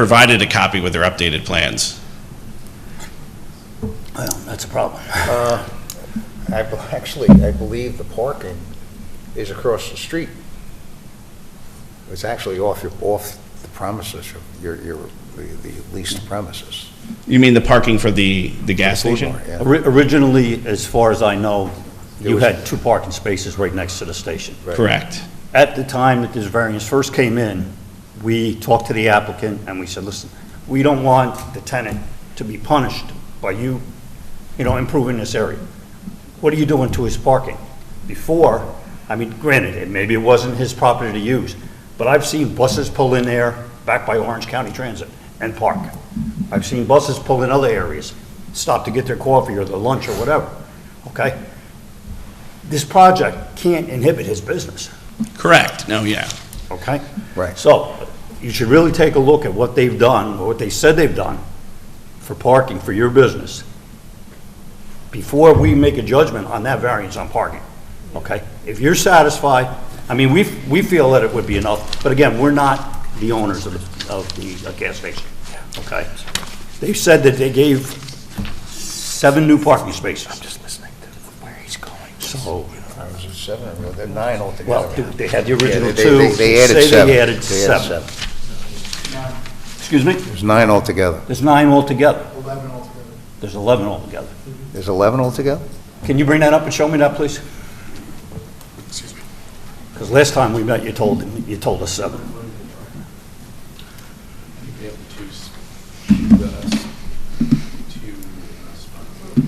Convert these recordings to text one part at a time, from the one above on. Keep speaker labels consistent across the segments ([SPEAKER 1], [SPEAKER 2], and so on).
[SPEAKER 1] provided a copy with their updated plans.
[SPEAKER 2] Well, that's a problem.
[SPEAKER 3] Uh, I, be- actually, I believe the parking is across the street. It's actually off your, off the premises, of your, your, the the leased premises.
[SPEAKER 1] You mean the parking for the, the gas station?
[SPEAKER 3] Yeah.
[SPEAKER 2] Ori- Originally, as far as I know,
[SPEAKER 3] There
[SPEAKER 2] you
[SPEAKER 3] was-
[SPEAKER 2] had two parking spaces right next to the station.
[SPEAKER 3] Right.
[SPEAKER 1] Correct.
[SPEAKER 2] At the time that this variance first came in, we talked to the applicant and we said, listen, we don't want the tenant to be punished by you, you know, improving this area. What are you doing to his parking? Before, I mean, granted, it- maybe it wasn't his property to use, but I've seen buses pull in there back by Orange County Transit and park. I've seen buses pull in other areas, stop to get their coffee or their lunch or whatever, okay? This project can't inhibit his business.
[SPEAKER 1] Correct. No, yeah.
[SPEAKER 2] Okay?
[SPEAKER 3] Right.
[SPEAKER 2] So, you should really take a look at what they've done, or what they said they've done for parking for your business before we make a judgment on that variance on parking, okay? If you're satisfied, I mean, we, we feel that it would be enough, but again, we're not the owners of the, of the uh, gas station, okay? They said that they gave seven new parking spaces. I'm just listening to where he's going. So,
[SPEAKER 3] I was at seven, or they're nine altogether.
[SPEAKER 2] well, they had the original
[SPEAKER 3] Yeah, they-
[SPEAKER 2] two.
[SPEAKER 3] they- They added
[SPEAKER 2] Say
[SPEAKER 3] seven.
[SPEAKER 2] they added
[SPEAKER 3] They
[SPEAKER 2] seven. Excuse me?
[SPEAKER 3] There's nine altogether.
[SPEAKER 2] There's nine altogether.
[SPEAKER 4] 11 altogether.
[SPEAKER 2] There's 11 altogether.
[SPEAKER 3] There's 11 altogether?
[SPEAKER 2] Can you bring that up and show me that, please? Because last time we met, you told, you told us seven.
[SPEAKER 5] We have two, s- the, two spots.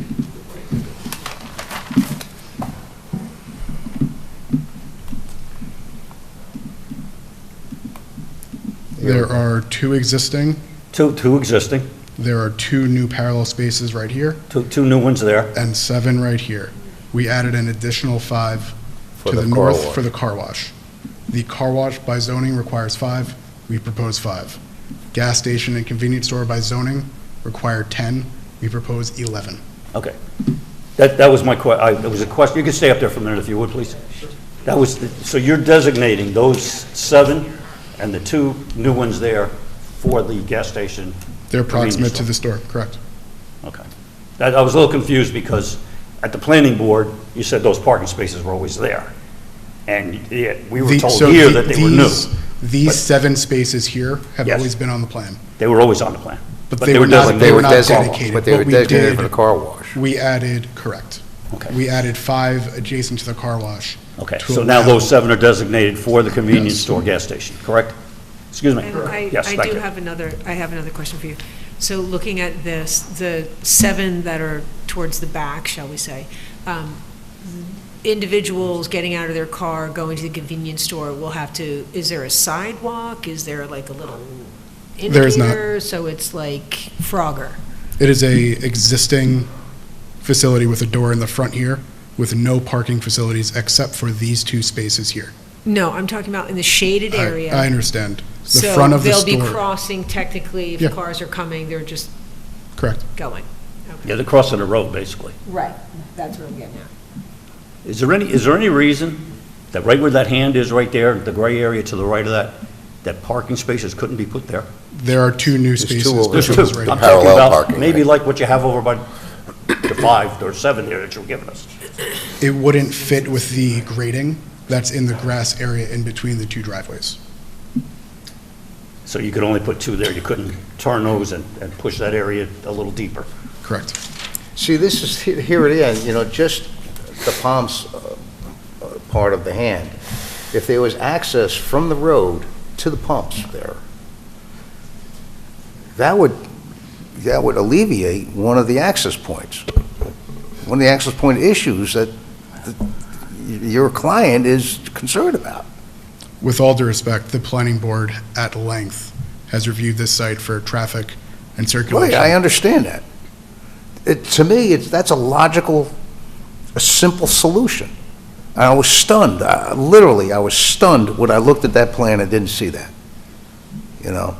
[SPEAKER 4] There are two existing,
[SPEAKER 2] Two, two existing,
[SPEAKER 4] there are two new parallel spaces right here,
[SPEAKER 2] two, two new ones there.
[SPEAKER 4] and seven right here. We added an additional five
[SPEAKER 3] For
[SPEAKER 4] to
[SPEAKER 3] the
[SPEAKER 4] the
[SPEAKER 3] car
[SPEAKER 4] north
[SPEAKER 3] wash.
[SPEAKER 4] for the car wash. The car wash by zoning requires five, we propose five. Gas station and convenience store by zoning require 10, we propose 11.
[SPEAKER 2] Okay. That, that was my que, I, it was a question, you can stay up there for a minute if you would, please. That was, the- so you're designating those seven and the two new ones there for the gas station?
[SPEAKER 4] They're
[SPEAKER 2] convenience
[SPEAKER 4] proximate
[SPEAKER 2] store.
[SPEAKER 4] to the store, correct?
[SPEAKER 2] Okay. That, I was a little confused because at the planning board, you said those parking spaces were always there. And yet, we were
[SPEAKER 4] The-
[SPEAKER 2] told
[SPEAKER 4] so
[SPEAKER 2] here
[SPEAKER 4] the-
[SPEAKER 2] that they were new.
[SPEAKER 4] these- These seven spaces here have
[SPEAKER 2] Yes.
[SPEAKER 4] always been on the plan.
[SPEAKER 2] They were always on the plan.
[SPEAKER 4] But they were
[SPEAKER 2] doesn't-
[SPEAKER 4] not, they were not
[SPEAKER 3] designated-
[SPEAKER 4] dedicated.
[SPEAKER 3] but they
[SPEAKER 4] What
[SPEAKER 3] were
[SPEAKER 4] we
[SPEAKER 3] designated
[SPEAKER 4] did-
[SPEAKER 3] for the car wash.
[SPEAKER 4] We added, correct.
[SPEAKER 2] Okay.
[SPEAKER 4] We added five adjacent to the car wash.
[SPEAKER 2] Okay,
[SPEAKER 4] to
[SPEAKER 2] so now
[SPEAKER 4] allow-
[SPEAKER 2] those seven are designated for the convenience
[SPEAKER 4] Yes.
[SPEAKER 2] store gas station, correct? Excuse me?
[SPEAKER 6] And I,
[SPEAKER 2] Yes,
[SPEAKER 6] I
[SPEAKER 2] thank
[SPEAKER 6] do
[SPEAKER 2] you.
[SPEAKER 6] have another, I have another question for you. So looking at this, the seven that are towards the back, shall we say, um, individuals getting out of their car, going to the convenience store will have to, is there a sidewalk? Is there like a little
[SPEAKER 4] There is not.
[SPEAKER 6] indicator? So it's like Frogger.
[SPEAKER 4] It is a existing facility with a door in the front here with no parking facilities except for these two spaces here.
[SPEAKER 6] No, I'm talking about in the shaded
[SPEAKER 4] I-
[SPEAKER 6] area.
[SPEAKER 4] I understand. The front of the
[SPEAKER 6] So they'll be
[SPEAKER 4] store,
[SPEAKER 6] crossing technically
[SPEAKER 4] Yeah.
[SPEAKER 6] if cars are coming, they're just
[SPEAKER 4] correct.
[SPEAKER 6] going.
[SPEAKER 2] Yeah, they're crossing the road, basically.
[SPEAKER 6] Right, that's what I'm getting at.
[SPEAKER 2] Is there any, is there any reason that right where that hand is right there, the gray area to the right of that, that parking spaces couldn't be put there?
[SPEAKER 4] There are two new
[SPEAKER 3] two
[SPEAKER 4] spaces.
[SPEAKER 3] over
[SPEAKER 4] This
[SPEAKER 2] There's
[SPEAKER 3] Which
[SPEAKER 2] two.
[SPEAKER 4] one's right
[SPEAKER 2] I'm
[SPEAKER 4] here.
[SPEAKER 2] talking
[SPEAKER 3] Parallel
[SPEAKER 2] about
[SPEAKER 3] parking,
[SPEAKER 2] maybe
[SPEAKER 3] right.
[SPEAKER 2] like what you have over by the five or seven there that you're giving us.
[SPEAKER 4] It wouldn't fit with the grading that's in the grass area in between the two driveways.
[SPEAKER 2] So you could only put two there, you couldn't turn those and, and push that area a little deeper.
[SPEAKER 4] Correct.
[SPEAKER 3] See, this is, he- here it is, you know, just the palms uh, uh, part of the hand. If there was access from the road to the pumps there, that would, that would alleviate one of the access points. One of the access point issues that that y- your client is concerned about.
[SPEAKER 4] With all due respect, the planning board at length has reviewed this site for traffic and
[SPEAKER 3] Right, I
[SPEAKER 4] circulation.
[SPEAKER 3] understand that. It, to me, it's, that's a logical, a simple solution. And I was stunned, I- literally, I was stunned when I looked at that plan and didn't see that, you know?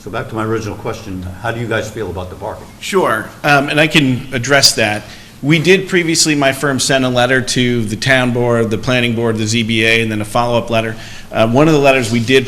[SPEAKER 2] So back to my original question, how do you guys feel about the parking?
[SPEAKER 1] Sure, um, and I can address that. We did previously, my firm sent a letter to the town board, the planning board, the ZBA, and then a follow-up letter. Uh, One of the letters we did